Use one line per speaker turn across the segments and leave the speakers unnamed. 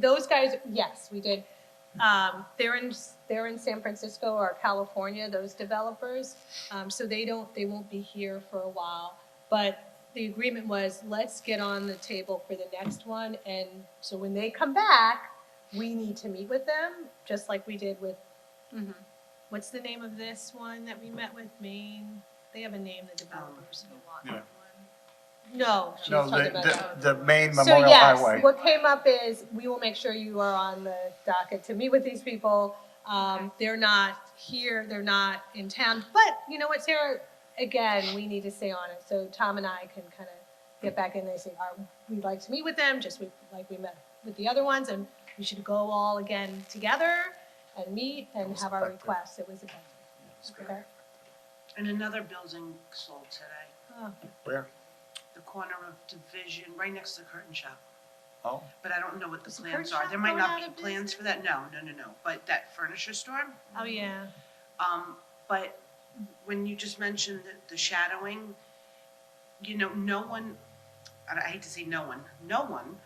those guys, yes, we did. Um, they're in, they're in San Francisco or California, those developers. Um, so they don't, they won't be here for a while. But the agreement was, let's get on the table for the next one. And so when they come back, we need to meet with them, just like we did with, mm-hmm.
Mhm.
what's the name of this one that we met with, Maine? They have a name, the developers who want
Yeah.
that one. No, she's
No,
talking about.
the, the, the main
So
Memorial
yes,
Highway.
what came up is, we will make sure you are on the docket to meet with these people. Um, they're not here, they're not in town, but you know what, Sarah, again, we need to stay on it. So Tom and I can kind of get back in there and say, "Are- we'd like to meet with them, just we- like we met with the other ones, and we should go all again together and meet and have our requests. It was, a- okay?
And another building sold today,
Oh,
Where?
the corner of Division, right next to the curtain shop.
Oh,
But I don't know what the
Is the curtain
plans are.
shop
There might
going
not
out of
be plans for that. No, no, no, no. But that furniture store,
Oh, yeah,
um, but when you just mentioned the, the shadowing, you know, no one, and I hate to say no one, no one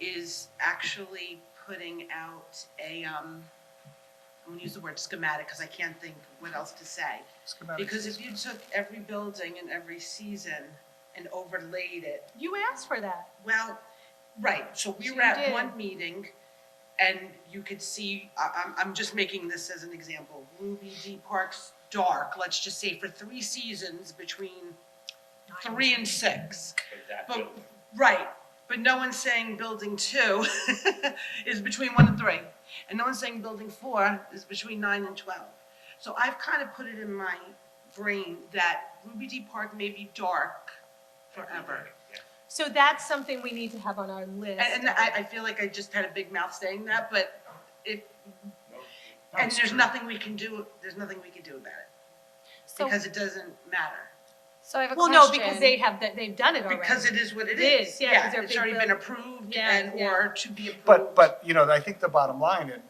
is actually putting out a, um, I'm gonna use the word schematic because I can't think what else to say. Because
schematics.
if you took every building and every season and overlaid it,
you asked for that.
well, right, so we
So
were
you
at
did.
one meeting and you could see, I, I'm, I'm just making this as an example, Ruby D Park's dark, let's just say for three seasons between three and six. But, right, but no one's saying building two is between one and three. And no one's saying building four is between nine and twelve. So I've kind of put it in my brain that Ruby D Park may be dark forever.
So that's something we need to have on our list.
And, and I, I feel like I just had a big mouth saying that, but if, and
That's
there's
true.
nothing we can do, there's nothing we can do about it,
So,
because it doesn't matter.
so I have a
Well,
question.
no, because they have, that they've done it already.
Because it is what it
It is,
is,
yeah, 'cause
yeah,
they're
it's
big
already been
build-
approved
Yeah,
and,
yeah.
or to be approved.
But, but, you know, I think the bottom line, and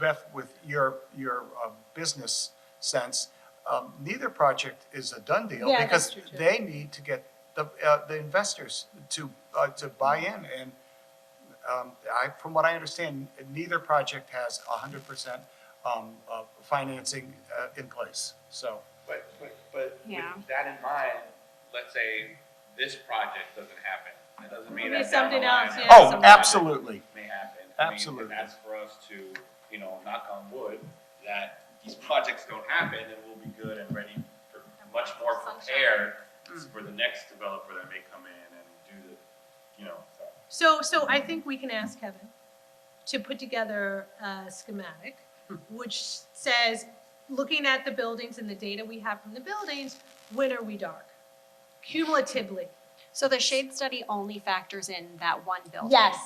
Beth, with your, your um, business sense, um, neither project is a done deal.
Yeah, that's true,
Because
too.
they need to get the, uh, the investors to, uh, to buy in. And um, I, from what I understand, neither project has a hundred percent um, financing uh, in place, so.
But, but, but with
Yeah.
that in mind, let's say this project doesn't happen, that doesn't mean
Maybe
that down the
something
line.
else,
that
yeah, something
other
Oh,
like
project
absolutely.
May happen. I
Absolutely.
mean, and that's for us to, you know, knock on wood, that these projects don't happen, and we'll be good and ready for, much more prepared
Hmm.
for the next developer that may come in and do the, you know, so.
So, so I think we can ask Kevin to put together a schematic, which says, looking at the buildings and the data we have from the buildings, when are we dark? Cumulatively.
So the shade study only factors in that one building?
Yes.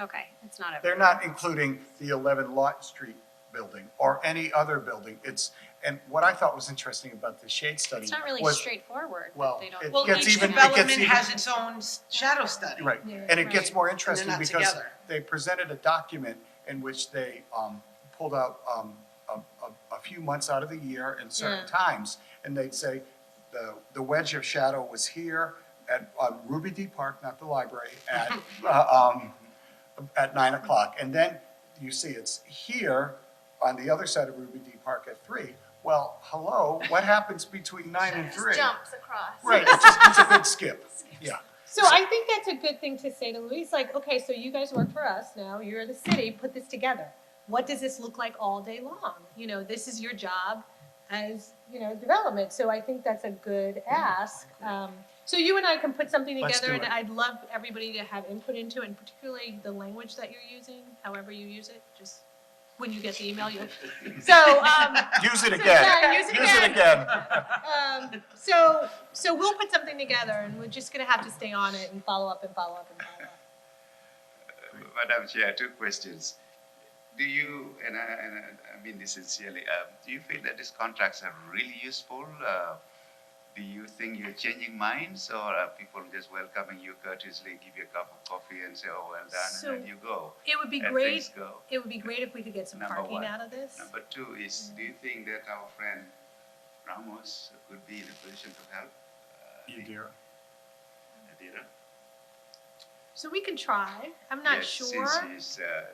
Okay, it's not a,
They're not including the 11 Lot Street building or any other building. It's, and what I thought was interesting about the shade study
it's not really
was-
straightforward,
well,
that they
it
don't.
Well,
gets
each
even- it gets
development
even-
has its own s- shadow study.
Right,
Yeah.
and it gets
Right.
more interesting
not
because
together.
they presented a document in which they um, pulled out um, a, a- a few months out of the year and certain
Yeah.
times, and they'd say, the, the wedge of shadow was here at on Ruby D Park, not the library, at, uh, um, at nine o'clock. And then you see it's here on the other side of Ruby D Park at three. Well, hello, what happens between nine and three?
jumps across.
Right, it's just, it's a big skip, yeah.
So I think that's a good thing to say to Louise, like, okay, so you guys work for us now, you're the city, put this together. What does this look like all day long? You know, this is your job as, you know, development, so I think that's a good ask. Um, so you and I can put something
Let's
together,
do
and
it.
I'd love everybody to have input into, it, and particularly the language that you're using, however you use it, just when you get the email, you'll, so, um,
Use it
so,
again,
yeah, use it
use it
again.
again.
Um, so, so we'll put something together, and we're just gonna have to stay on it and follow up and follow up and follow up.
Madam Chair, two questions. Do you, and I, and I- I mean this sincerely, uh, do you feel that these contracts are really useful? Uh, Do you think you're changing minds or are people just welcoming you courteously, give you a cup of coffee and say, oh, well done,
So-
and then you go?
It would be
and
great.
things go.
It would be great if we could get some
Number
parking
one.
out of this.
Number two is,
Mm.
do you think that our friend Ramos could be in a position to help? uh,
You
the-
dear.
Adira?
So we can try. I'm not
Yes,
sure.
Since he's uh,